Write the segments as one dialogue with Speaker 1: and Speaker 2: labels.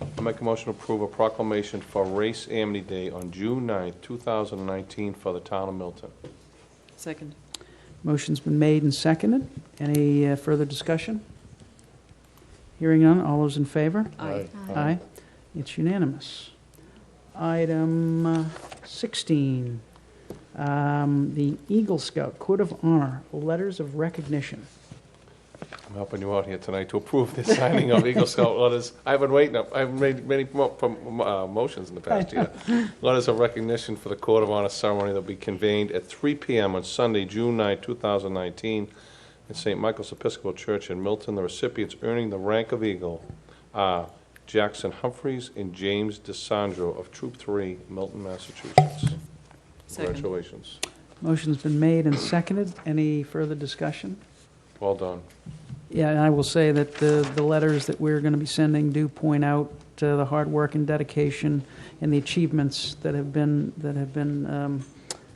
Speaker 1: I make a motion to approve a proclamation for Race Amity Day on June 9th, 2019 for the town of Milton.
Speaker 2: Second.
Speaker 3: Motion's been made and seconded. Any uh, further discussion? Hearing none, all those in favor?
Speaker 2: Aye.
Speaker 4: Aye.
Speaker 3: Aye. It's unanimous. Item uh, 16, um, the Eagle Scout Court of Honor, Letters of Recognition.
Speaker 1: I'm helping you out here tonight to approve the signing of Eagle Scout letters. I've been waiting, up- I've made many mo- prom- uh, motions in the past year. Letters of recognition for the Court of Honor ceremony that will be convened at 3 PM on Sunday, June 9, 2019, in St. Michael's Episcopal Church in Milton. The recipients earning the rank of Eagle are Jackson Humphreys and James DeSandro of Troop 3, Milton, Massachusetts.
Speaker 2: Second.
Speaker 1: Congratulations.
Speaker 3: Motion's been made and seconded. Any further discussion?
Speaker 1: Well done.
Speaker 3: Yeah, and I will say that the, the letters that we're going to be sending do point out uh, the hard work and dedication and the achievements that have been, that have been, um,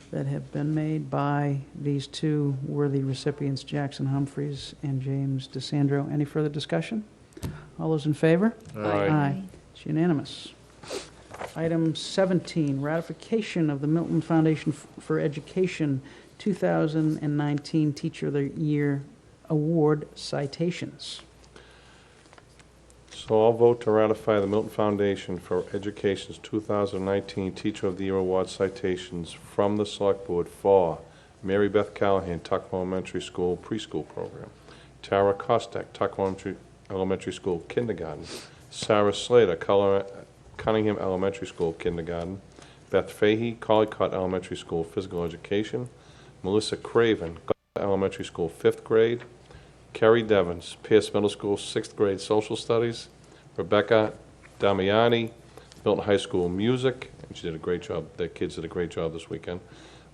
Speaker 3: that have been made by these two worthy recipients, Jackson Humphreys and James DeSandro. Any further discussion? All those in favor?
Speaker 1: Aye.
Speaker 3: It's unanimous. Item 17, ratification of the Milton Foundation for Education 2019 Teacher of the Year Award citations.
Speaker 1: So I'll vote to ratify the Milton Foundation for Education's 2019 Teacher of the Year Award citations from the Select Board for Mary Beth Callahan, Tuckahoe Elementary School Preschool Program, Tara Kostek, Tuckahoe Elementary- Elementary School Kindergarten, Sarah Slater, Color- Cunningham Elementary School Kindergarten, Beth Fahey, Collycott Elementary School Physical Education, Melissa Craven, Gloucester Elementary School Fifth Grade, Carrie Devens, Pierce Middle School, sixth grade social studies. Rebecca Damiani, Milton High School music, and she did a great job, their kids did a great job this weekend.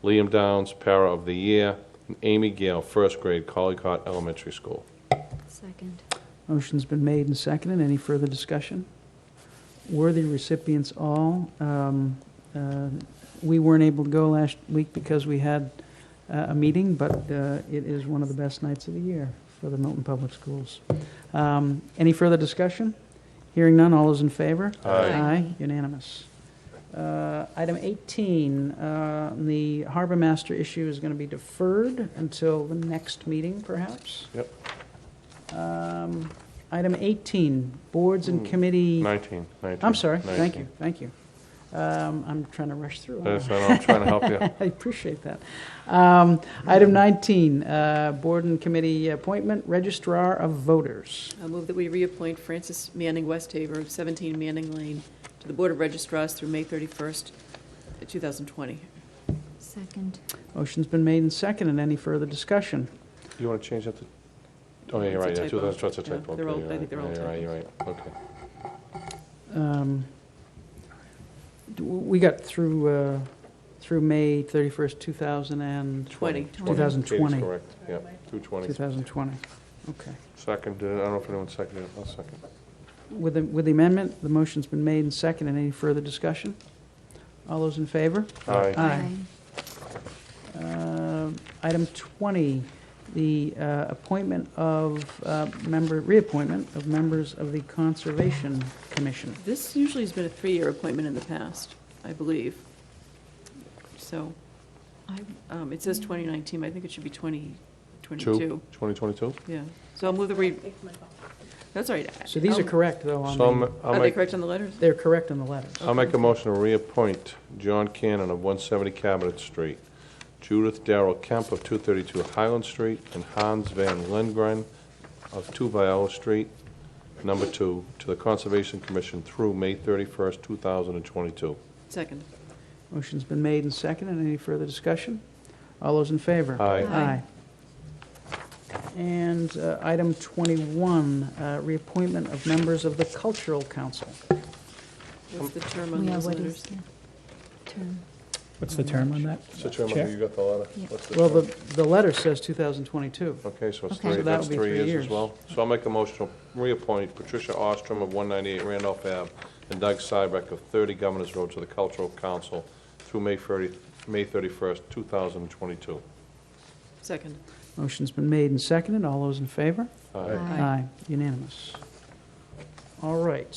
Speaker 1: Liam Downs, para of the year, and Amy Gale, first grade, Collycott Elementary School.
Speaker 4: Second.
Speaker 3: Motion's been made and seconded. Any further discussion? Worthy recipients all. Um, uh, We weren't able to go last week because we had uh, a meeting, but uh, it is one of the best nights of the year for the Milton Public Schools. Um, Any further discussion? Hearing none, all those in favor?
Speaker 1: Aye.
Speaker 3: Aye, unanimous. Uh, Item 18, uh, the harbor master issue is going to be deferred until the next meeting, perhaps?
Speaker 1: Yep.
Speaker 3: Um, Item 18, boards and committee,
Speaker 1: 19, 19.
Speaker 3: I'm sorry, thank you,
Speaker 1: 19.
Speaker 3: thank you. Um, I'm trying to rush through.
Speaker 1: That's, I know, I'm trying to help you.
Speaker 3: I appreciate that. Um, Item 19, uh, board and committee appointment, registrar of voters.
Speaker 2: I move that we reappoint Francis Manning Westhaver of 17 Manning Lane to the Board of Registrars through May 31st, 2020.
Speaker 4: Second.
Speaker 3: Motion's been made and seconded, any further discussion?
Speaker 1: You want to change that to, oh, yeah, you're
Speaker 2: It's a
Speaker 1: right, yeah,
Speaker 2: typo.
Speaker 1: 2000, that's a
Speaker 2: Yeah,
Speaker 1: typo.
Speaker 2: they're all-
Speaker 1: okay,
Speaker 2: I think they're all
Speaker 1: You're right, you're right, you're right, okay.
Speaker 3: Um, d- We got through, uh, through May 31st, 2000 and...
Speaker 2: Twenty.
Speaker 3: 2020.
Speaker 1: Katie's correct, yeah, 220.
Speaker 3: 2020, okay.
Speaker 1: Seconded, uh, I don't know if anyone seconded it, I'll second.
Speaker 3: With the, with the amendment, the motion's been made and seconded. Any further discussion? All those in favor?
Speaker 1: Aye.
Speaker 3: Uh, Item 20, the uh, appointment of uh, member, reappointment of members of the Conservation Commission.
Speaker 2: This usually has been a three-year appointment in the past, I believe. So um, it says 2019, but I think it should be 2022.
Speaker 1: 2022?
Speaker 2: Yeah. So I'll move that we, that's all right.
Speaker 3: So these are
Speaker 2: I'll-
Speaker 3: correct, though, on
Speaker 1: So I'm-
Speaker 3: the,
Speaker 1: I'll
Speaker 2: Are they
Speaker 1: make,
Speaker 2: correct on the letters?
Speaker 3: they're correct on the letters.
Speaker 1: I'll make a motion to reappoint John Cannon of 170 Cabinet Street, Judith Darrell Kemp of 232 Highland Street, and Hans Van Lindgren of 2 Viola Street, number 2, to the Conservation Commission through May 31st, 2022.
Speaker 2: Second.
Speaker 3: Motion's been made and seconded. Any further discussion? All those in favor?
Speaker 1: Aye.
Speaker 3: Aye. And uh, item 21, uh, reappointment of members of the Cultural Council.
Speaker 1: Um,
Speaker 2: What's the term on
Speaker 4: Yeah,
Speaker 2: those
Speaker 4: what
Speaker 2: letters?
Speaker 4: is the term?
Speaker 5: What's the term on that?
Speaker 1: Mr. Chairman, you got the letter?
Speaker 4: Yeah.
Speaker 1: What's
Speaker 3: Well,
Speaker 1: term?
Speaker 3: the, the letter says 2022.
Speaker 1: Okay, so it's
Speaker 4: Okay.
Speaker 1: three,
Speaker 4: So that
Speaker 1: that's
Speaker 3: would be
Speaker 1: three
Speaker 3: three
Speaker 1: years as
Speaker 3: years.
Speaker 1: well. So I'll make a motion to reappoint Patricia Ostrom of 198 Randolph Ave and Doug Cybeck of 30 Governors Road to the Cultural Council through May 30, May 31st, 2022.
Speaker 2: Second.
Speaker 3: Motion's been made and seconded. All those in favor?
Speaker 1: Aye.
Speaker 4: Aye.
Speaker 3: Unanimous. All right.